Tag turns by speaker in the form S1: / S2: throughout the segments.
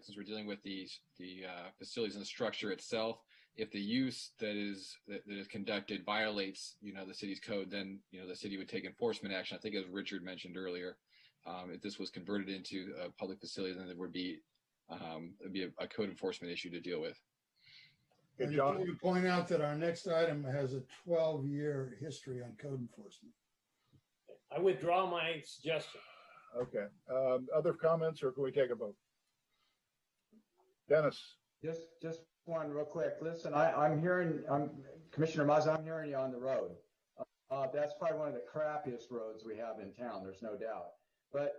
S1: since we're dealing with the the uh, facilities and the structure itself, if the use that is that, that is conducted violates you know the city's code, then you know the city would take enforcement action. I think as Richard mentioned earlier, um, if this was converted into a public facility, then there would be um, it'd be a, a code enforcement issue to deal with.
S2: Good
S3: And
S2: job.
S3: let me Point out that our next item has a twelve-year history on code enforcement.
S4: I withdraw my suggestion.
S2: Okay. Um, other comments or can we take a vote? Dennis,
S5: Just, just one real quick. Listen, I, I'm hearing, I'm, Commissioner Mazza, I'm hearing you on the road. Uh, that's probably one of the crappiest roads we have in town, there's no doubt. But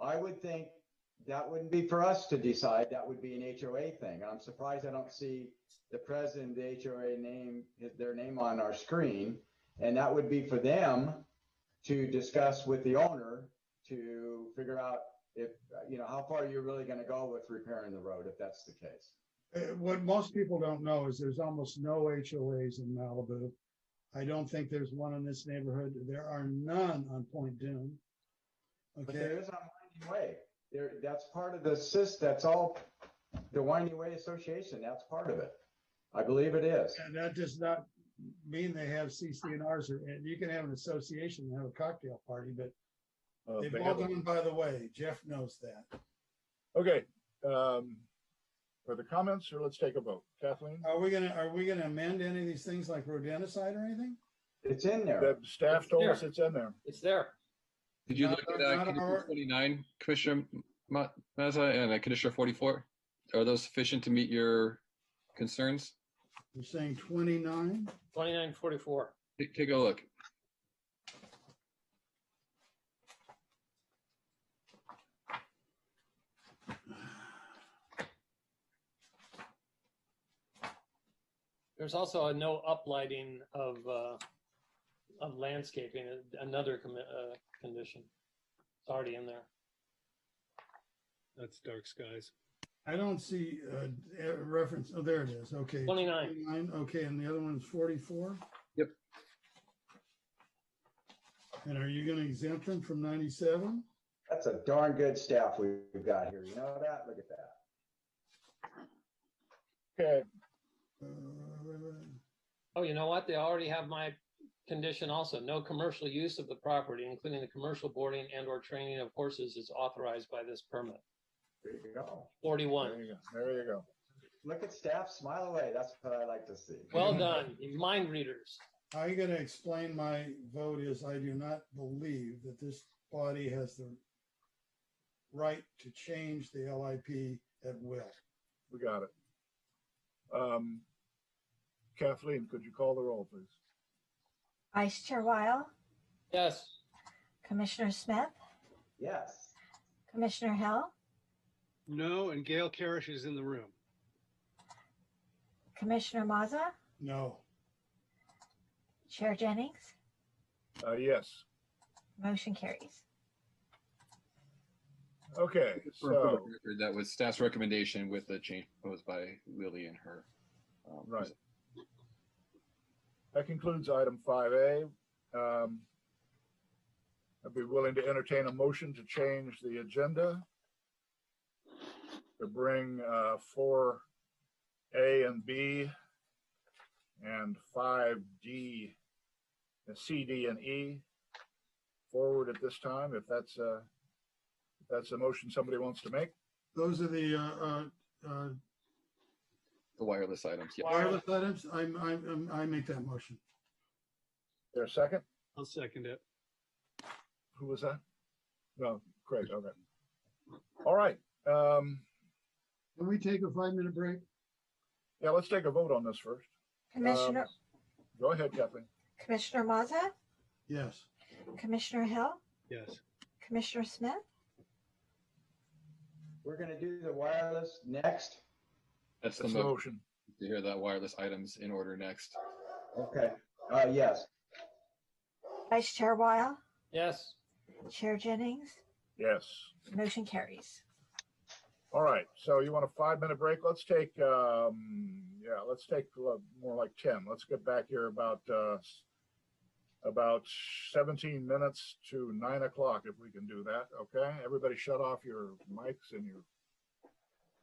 S5: I would think that wouldn't be for us to decide. That would be an HOA thing. I'm surprised I don't see the president, of the HOA name, his- their name on our screen. And that would be for them to discuss with the owner to figure out if, you know, how far you're really gonna go with repairing the road if that's the case.
S3: Uh, What most people don't know is there's almost no HOAs in Malibu. I don't think there's one in this neighborhood. There are none on Point Dune.
S5: But
S3: Okay,
S5: there is on Winding Way. There, that's part of the sys, that's all, the Winding Way Association, that's part of it. I believe it is.
S3: And that does not mean they have CCNRs or, and you can have an association and have a cocktail party, but
S2: uh,
S3: they've
S2: they
S3: all
S2: have-
S3: gone by the way. Jeff knows that.
S2: okay. Um, further comments or let's take a vote. Kathleen,
S3: Are we gonna, are we gonna amend any of these things like rodenticide or anything?
S5: It's in there.
S2: the staff told us it's in there.
S4: It's there.
S1: Did you
S3: Not-
S1: look at
S3: not
S1: uh, Condition
S3: our-
S1: 29, Commissioner Ma- Mazza, and uh, Condition 44? Are those sufficient to meet your concerns?
S3: You're saying twenty-nine?
S4: Twenty-nine forty-four.
S1: Take, take a look.
S4: There's also a no uplighting of, uh, of landscaping, another commi- uh, condition. It's already in there.
S6: That's dark skies.
S3: I don't see uh, a reference. Oh, there it is. Okay.
S4: 29.
S3: 29, Okay, and the other one's forty-four?
S1: Yep.
S3: And are you gonna exempt them from ninety-seven?
S5: That's a darn good staff we've got here. You know that? Look at that.
S2: Okay.
S3: Uh,
S4: Oh, you know what? They already have my condition also. No commercial use of the property, including the commercial boarding and or training of horses is authorized by this permit.
S5: There you go.
S2: There
S4: Forty-one.
S2: you go. There you go.
S5: Look at staff smile away. That's what I like to see.
S4: Well done, you mind readers.
S3: I'm gonna explain my vote is I do not believe that this body has the right to change the LIP at will.
S2: We got it. Um, Kathleen, could you call the roll, please?
S7: Vice Chair Wile,
S4: Yes,
S7: Commissioner Smith,
S5: Yes.
S7: Commissioner Hill,
S6: No, and Gail Carish is in the room.
S7: Commissioner Mazza,
S3: No.
S7: Chair Jennings,
S2: Uh, yes.
S7: motion carries.
S2: Okay.
S1: For- for the
S2: So,
S1: record, That was staff's recommendation with the change proposed by Lily and her. um,
S2: Right. That concludes item five A. Um, I'd be willing to entertain a motion to change the agenda to bring uh, four A and B and five D and C, D, and E forward at this time. If that's uh if that's a motion somebody wants to make.
S3: Those are the, uh, uh, uh,
S1: The wireless items, yeah.
S3: wireless items. I'm, I'm, I'm- I make that motion.
S2: There a second?
S6: I'll second it.
S2: Who was that? No, Craig. Okay. All right. Um,
S3: Can we take a five-minute break?
S2: Yeah, let's take a vote on this first.
S7: Commissioner,
S2: Go ahead, Kathleen.
S7: Commissioner Mazza,
S3: Yes.
S7: Commissioner Hill,
S6: Yes.
S7: Commissioner Smith,
S5: We're gonna do the wireless next.
S1: That's the
S2: That's the
S1: motion
S2: motion.
S1: to hear that wireless items in order next.
S5: Okay. Uh, yes.
S7: Vice Chair Wile,
S4: yes.
S7: Chair Jennings,
S2: Yes.
S7: motion carries.
S2: All right. So you want a five minute break? Let's take, um, yeah, let's take uh, more like 10. Let's get back here about, uh, s- about 17 minutes to nine o'clock if we can do that. Okay. Everybody shut off your mics and your